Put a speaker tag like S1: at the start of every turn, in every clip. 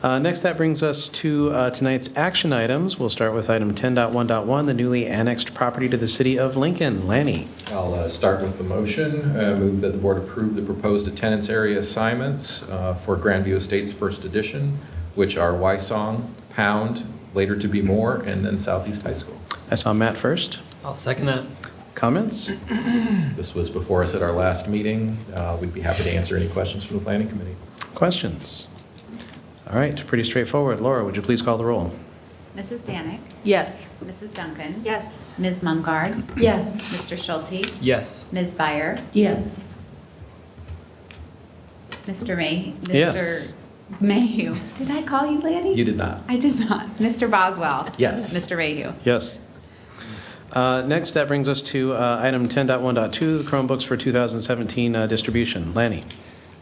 S1: Uh, Next, that brings us to uh, tonight's action items. We'll start with item 10.1.1, the newly annexed property to the city of Lincoln. Lanny,
S2: I'll uh, start with the motion. Uh, Move that the board approve the proposed attendance area assignments uh, for Grandview Estates First Edition, which are Wysong, Pound, later to be More, and then Southeast High School.
S1: I saw Matt first.
S3: I'll second that.
S1: Comments?
S2: This was before us at our last meeting. Uh, We'd be happy to answer any questions from the planning committee.
S1: Questions? All right, pretty straightforward. Laura, would you please call the roll?
S4: Mrs. Danick,
S5: Yes.
S4: Mrs. Duncan.
S5: Yes.
S4: Ms. Mungard,
S5: Yes.
S4: Mr. Schulte,
S3: Yes.
S4: Ms. Byer,
S5: Yes.
S4: Mr. May.
S1: Yes.
S4: Mr. Mayhew. Did I call you Lanny?
S2: You did not.
S4: I did not. Mr. Boswell.
S2: Yes.
S4: Mr. Mayhew.
S1: Yes. Uh, Next, that brings us to uh, item 10.1.2, the Chromebooks for 2017 uh, distribution. Lanny,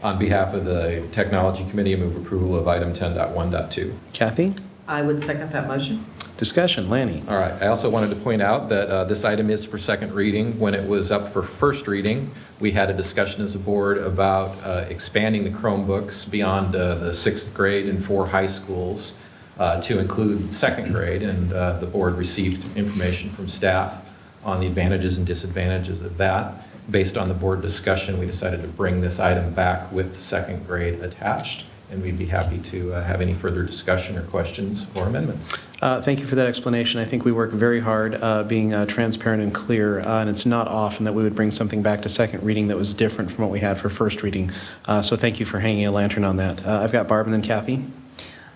S2: On behalf of the Technology Committee, I move approval of item 10.1.2.
S1: Kathy,
S5: I would second that motion.
S1: discussion. Lanny,
S2: All right, I also wanted to point out that uh, this item is for second reading. When it was up for first reading, we had a discussion as a board about uh, expanding the Chromebooks beyond uh, the sixth grade and four high schools uh, to include second grade, and uh, the board received information from staff on the advantages and disadvantages of that. Based on the board discussion, we decided to bring this item back with second grade attached, and we'd be happy to uh, have any further discussion or questions or amendments.
S1: Uh, Thank you for that explanation. I think we work very hard uh, being uh, transparent and clear, uh, and it's not often that we would bring something back to second reading that was different from what we had for first reading. Uh, So thank you for hanging a lantern on that. Uh, I've got Barb and then Kathy.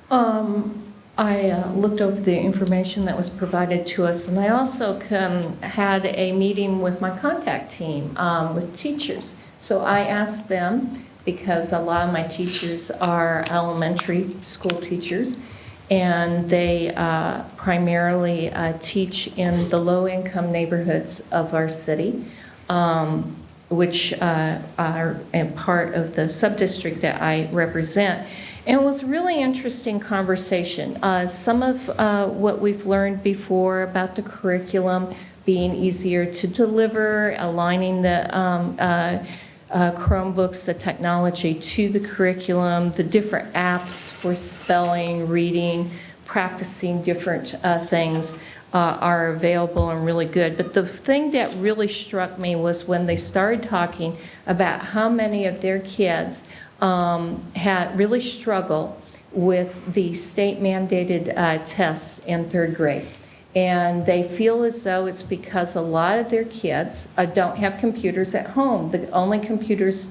S6: Um, I uh, looked over the information that was provided to us, and I also um, had a meeting with my contact team, um, with teachers. So I asked them, because a lot of my teachers are elementary school teachers, and they uh, primarily uh, teach in the low-income neighborhoods of our city, um, which uh, are a part of the sub-district that I represent. And it was a really interesting conversation. Uh, Some of uh, what we've learned before about the curriculum being easier to deliver, aligning the um, uh, uh, Chromebooks, the technology to the curriculum, the different apps for spelling, reading, practicing different uh, things uh, are available and really good. But the thing that really struck me was when they started talking about how many of their kids um, had really struggled with the state mandated uh, tests in third grade. And they feel as though it's because a lot of their kids uh, don't have computers at home. The only computers